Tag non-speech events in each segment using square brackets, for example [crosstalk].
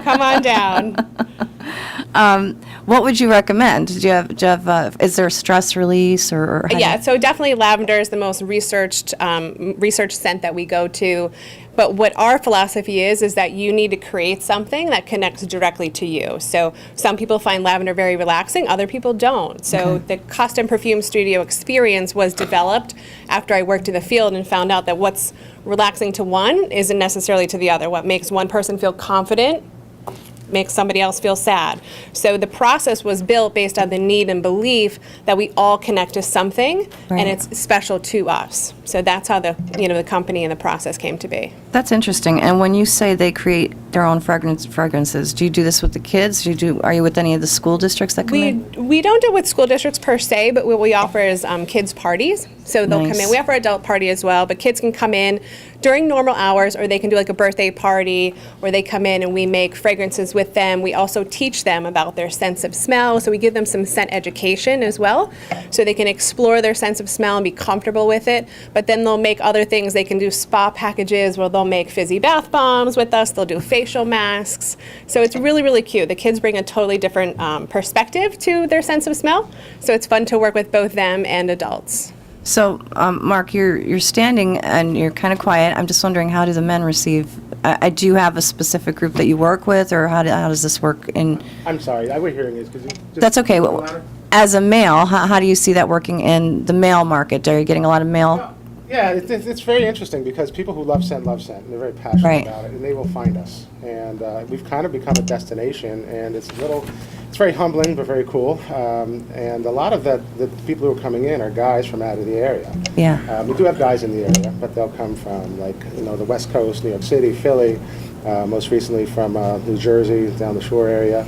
come on down. [laughs] What would you recommend? Do you have, do you have, uh, is there stress release or? or how do you- Yeah, so definitely lavender is the most researched um, research scent that we go to. But what our philosophy is is that you need to create something that connects directly to you. So some people find lavender very relaxing, other people don't. So the custom perfume studio experience was developed after I worked in the field and found out that what's relaxing to one isn't necessarily to the other. What makes one person feel confident makes somebody else feel sad. So the process was built based on the need and belief that we all connect to something Right. and it's special to us. So that's how the you know the company and the process came to be. That's interesting. And when you say they create their own fragrance, fragrances, do you do this with the kids? Do you do, are you with any of the school districts that come We in? we don't do it with school districts per se, but what we offer is um, kids parties. So they'll come Nice. in. We offer adult party as well, but kids can come in during normal hours, or they can do like a birthday party, or they come in and we make fragrances with them. We also teach them about their sense of smell, so we give them some scent education as well, so they can explore their sense of smell and be comfortable with it. But then they'll make other things. They can do spa packages where they'll make fizzy bath bombs with us. They'll do facial masks. So it's really really cute. The kids bring a totally different um, perspective to their sense of smell, so it's fun to work with both them and adults. So, um, Mark, you're, you're standing and you're kind of quiet. I'm just wondering, how do the men receive? I, I do you have a specific group that you work with, or how, do, how does this work? In I'm sorry, I was hearing this because it just. that's okay. The Wh- louder? As a male, how, how do you see that working in the male market? Are you getting a lot of male? Yeah, it's, it's, it's very interesting because people who love scent love scent, and they're very passionate Right. about it, and they will find us. And uh, we've kind of become a destination, and it's a little, it's very humbling but very cool. Um, and a lot of the, the people who are coming in are guys from out of the area. Yeah. Um, we do have guys in the area, but they'll come from like you know the West Coast, New York City, Philly, uh, most recently from uh, New Jersey down the shore area.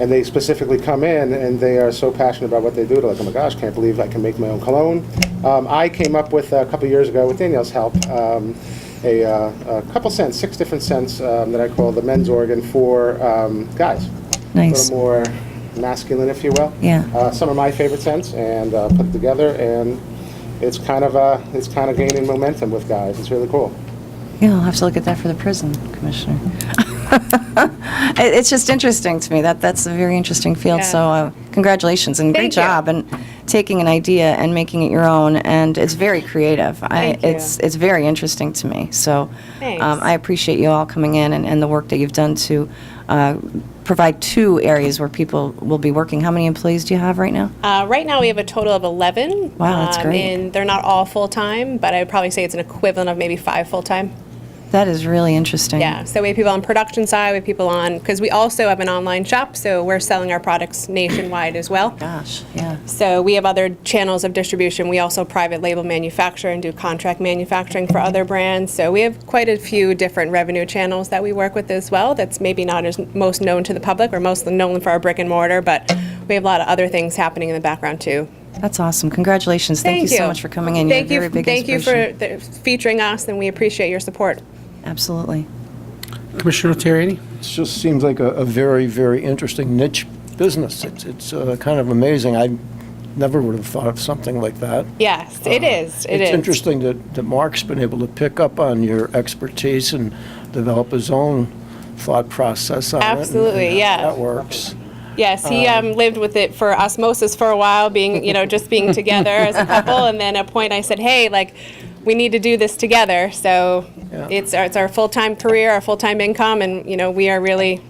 And they specifically come in and they are so passionate about what they do. They're like, oh my gosh, can't believe I can make my own cologne. Um, I came up with uh, a couple years ago with Danielle's help. Um, a, uh, a couple scents, six different scents um, that I call the men's organ for um, guys. Nice. A little more masculine, if you will. Yeah. Uh, some of my favorite scents and uh, put together, and it's kind of uh, it's kind of gaining momentum with guys. It's really cool. Yeah, I'll have to look at that for the prison commissioner. [laughs] It- It's just interesting to me. That, that's a very interesting field. Yeah. So uh, congratulations and great Thank you. job and taking an idea and making it your own. And it's very creative. Thank I, it's, it's very interesting to me. So Thanks. um, I appreciate you all coming in and, and the work that you've done to uh, provide two areas where people will be working. How many employees do you have right now? Uh, right now, we have a total of 11. Wow, that's great. And they're not all full time, but I would probably say it's an equivalent of maybe five full time. That is really interesting. Yeah. So we have people on production side, we have people on because we also have an online shop, so we're selling our products nationwide as well. Gosh, yeah. So we have other channels of distribution. We also private label manufacture and do contract manufacturing for other brands. So we have quite a few different revenue channels that we work with as well. That's maybe not as most known to the public. We're mostly known for our brick and mortar, but we have a lot of other things happening in the background too. That's awesome. Congratulations. Thank, you so much for coming in. You're Thank a you, very big thank you for inspiration. the, featuring us, and we appreciate your support. Absolutely. Commissioner Terriani? It just seems like a, a very, very interesting niche business. It's, it's uh, kind of amazing. I never would have thought of something like that. Yes, Oh, it is. It is. it's interesting that, that Mark's been able to pick up on your expertise and develop his own thought process on Absolutely, it. and- and how yeah. That works. Yes, he um, lived with it for osmosis for a while, being you know just [laughs] being together as a couple, and then at a point I said, hey, like we need to do this together. So Yeah. it's our, it's our full time career, our full time income, and you know we are really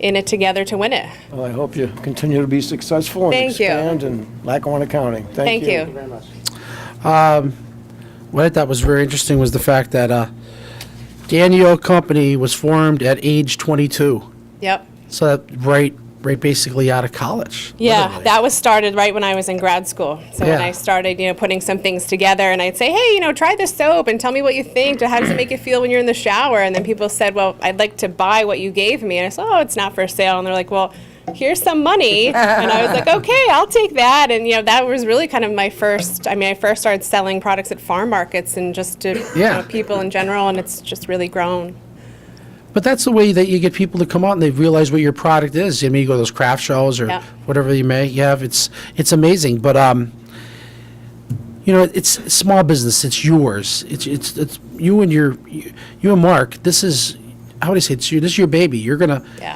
in it together to win it. Well, I hope you continue to be successful and Thank you. expand in Lackawanna County. Thank, you. Thank you very much. What I thought was very interesting was the fact that uh, Daniel Company was formed at age 22. Yep. So that right, right basically out of college. Yeah, literally. that was started right when I was in grad school. So when Yeah. I started, you know, putting some things together, and I'd say, hey, you know, try this soap and tell me what you think. How does it make you feel when you're in the shower? And then people said, well, I'd like to buy what you gave me. And I said, oh, it's not for sale. And they're like, well, here's some money. and I was [laughs] like, okay, I'll take that. And you know, that was really kind of my first. I mean, I first started selling products at farm markets and just to you Yeah. know, people in general, and it's just really grown. But that's the way that you get people to come out and they realize what your product is. I mean, you go to those craft shows or Yeah. whatever you may you have. It's it's amazing. But um, you know, it's a small business. It's yours. It's it's it's you and your you, you and Mark. This is how would I say? It's you. This is your baby. You're gonna Yeah.